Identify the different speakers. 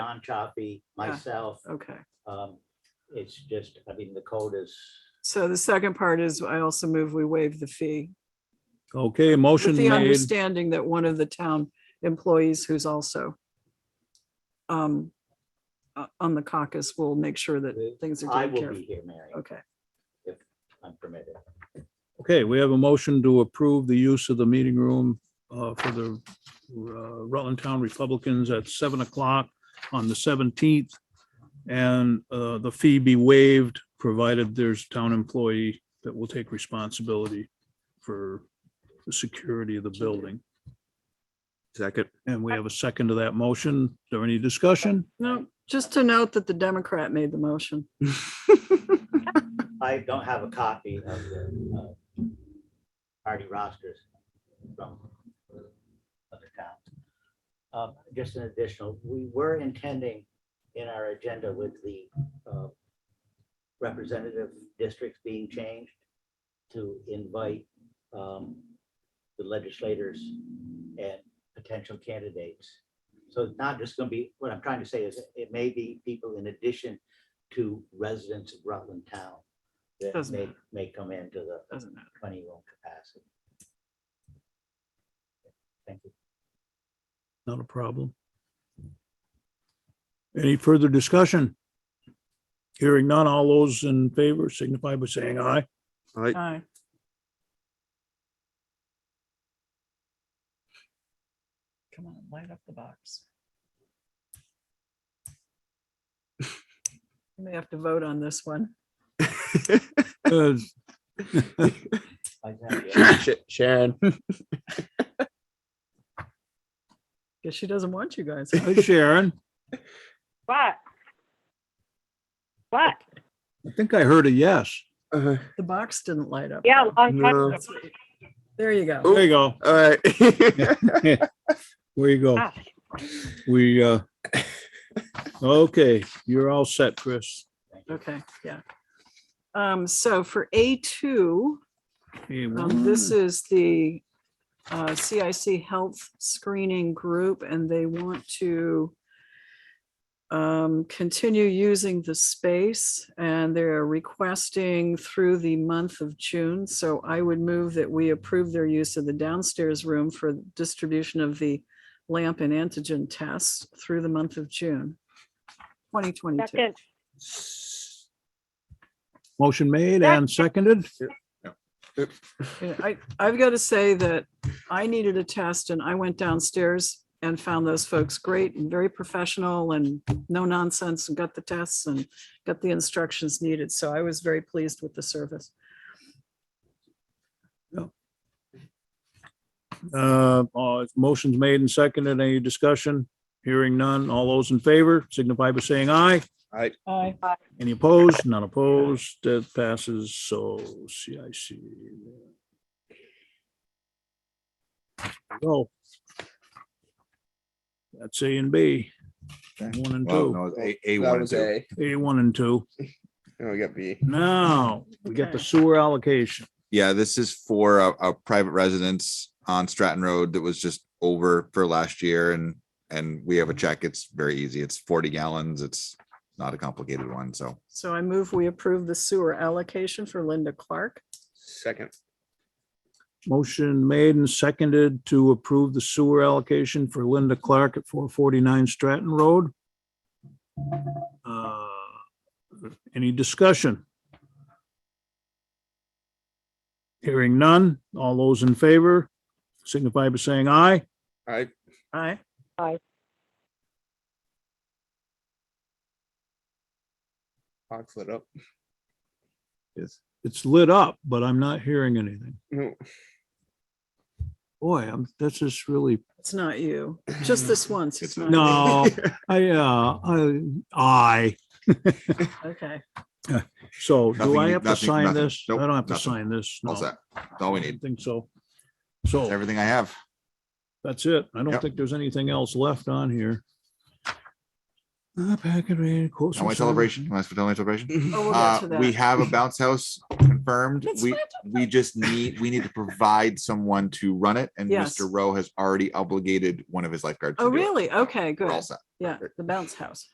Speaker 1: John Chaffee, myself.
Speaker 2: Okay.
Speaker 1: Um, It's just, I mean, the code is,
Speaker 2: So the second part is I also move we waive the fee
Speaker 3: Okay,
Speaker 2: with
Speaker 3: motion
Speaker 2: the
Speaker 3: made.
Speaker 2: understanding that one of the town employees who's also um, uh, on the caucus will make sure that things are
Speaker 1: I
Speaker 2: taken care
Speaker 1: will
Speaker 2: of.
Speaker 1: be here, Mary,
Speaker 2: Okay.
Speaker 1: if I'm permitted.
Speaker 3: Okay, we have a motion to approve the use of the meeting room uh, for the uh, Rutland Town Republicans at seven o'clock on the seventeenth. And uh, the fee be waived, provided there's a town employee that will take responsibility for the security of the building.
Speaker 4: Second.
Speaker 3: And we have a second to that motion. Is there any discussion?
Speaker 2: No, just to note that the Democrat made the motion.
Speaker 1: I don't have a copy of the uh, party rosters from other towns. Um, Just an additional, we were intending in our agenda with the uh, representative districts being changed to invite um, the legislators and potential candidates. So it's not just going to be, what I'm trying to say is it may be people in addition to residents of Rutland Town that
Speaker 2: Doesn't
Speaker 1: may,
Speaker 2: matter.
Speaker 1: may come into the
Speaker 2: Doesn't matter.
Speaker 1: twenty-one capacity. Thank you.
Speaker 3: Not a problem. Any further discussion? Hearing none, all those in favor signify by saying aye.
Speaker 4: Aye.
Speaker 3: Oh.
Speaker 2: Aye. Come on, light up the box. We may have to vote on this one.
Speaker 3: Uh,
Speaker 1: I thank
Speaker 4: Sh- Sharon.
Speaker 2: Guess she doesn't want you guys. huh?
Speaker 3: hi, Sharon,
Speaker 5: What? What?
Speaker 3: I think I heard a yes.
Speaker 4: Uh,
Speaker 2: The box didn't light up.
Speaker 5: Yeah, long time.
Speaker 4: No.
Speaker 5: ago.
Speaker 2: There you go.
Speaker 3: There you go.
Speaker 4: All right.
Speaker 3: Where you go.
Speaker 5: Ah,
Speaker 3: We, uh, okay, you're all set, Chris.
Speaker 1: you.
Speaker 2: Okay, yeah. Um, so for A two,
Speaker 3: Hey,
Speaker 2: um, this is the uh, CIC Health Screening Group and they want to um, continue using the space and they're requesting through the month of June. So I would move that we approve their use of the downstairs room for distribution of the lamp and antigen tests through the month of June, twenty twenty-two.
Speaker 5: Second,
Speaker 3: Motion made and seconded.
Speaker 2: Yeah, I, I've got to say that I needed a test and I went downstairs and found those folks great and very professional and no nonsense and got the tests and got the instructions needed. So I was very pleased with the service.
Speaker 3: Uh, uh, motion's made and seconded. Any discussion? Hearing none, all those in favor signify by saying aye.
Speaker 2: Aye.
Speaker 3: Any opposed? None opposed. That passes. So CIC. Go. That's A and B. One and
Speaker 6: Well,
Speaker 3: two,
Speaker 6: no, A, A one and two.
Speaker 3: A one and two.
Speaker 6: No, we got B.
Speaker 3: Now, we get the sewer allocation.
Speaker 6: Yeah, this is for a, a private residence on Stratton Road that was just over for last year and, and we have a check. It's very easy. It's forty gallons. It's not a complicated one, so.
Speaker 2: So I move we approve the sewer allocation for Linda Clark.
Speaker 4: Second.
Speaker 3: Motion made and seconded to approve the sewer allocation for Linda Clark at four forty-nine Stratton Road. Uh, Any discussion? Hearing none. All those in favor signify by saying aye.
Speaker 4: Aye.
Speaker 2: Aye.
Speaker 4: Box lit up. Yes.
Speaker 3: It's lit up, but I'm not hearing anything.
Speaker 4: No.
Speaker 3: Boy, I'm, that's just really,
Speaker 2: It's not you, just this once. it's not
Speaker 6: It's-
Speaker 3: no, I, uh, I, aye.
Speaker 2: you. Okay,
Speaker 3: So do
Speaker 6: Nothing
Speaker 3: I
Speaker 6: you-
Speaker 3: have to
Speaker 6: nothing-
Speaker 3: sign
Speaker 6: nothing.
Speaker 3: this? I
Speaker 6: Nope,
Speaker 3: don't have to
Speaker 6: nothing.
Speaker 3: sign this.
Speaker 6: All
Speaker 3: no.
Speaker 6: set. That's all we
Speaker 3: I don't
Speaker 6: need.
Speaker 3: Think so.
Speaker 6: That's
Speaker 3: So
Speaker 6: everything I have.
Speaker 3: that's it. I don't
Speaker 6: Yep.
Speaker 3: think there's anything else left on here. Uh, packet raid, quotes
Speaker 6: Now
Speaker 3: and
Speaker 6: my
Speaker 3: service.
Speaker 6: celebration, you want us to tell my celebration?
Speaker 2: oh, we'll
Speaker 6: Uh,
Speaker 2: get to
Speaker 6: we
Speaker 2: that.
Speaker 6: have a bounce house confirmed.
Speaker 2: It's
Speaker 6: We,
Speaker 2: not
Speaker 6: we just need, we need to provide someone to run it and
Speaker 2: Yes.
Speaker 6: Mr. Rowe has already obligated one of his lifeguards. to
Speaker 2: Oh,
Speaker 6: do it.
Speaker 2: really?
Speaker 6: So
Speaker 2: Okay,
Speaker 6: We're all
Speaker 2: good.
Speaker 6: set.
Speaker 2: Yeah, the bounce house.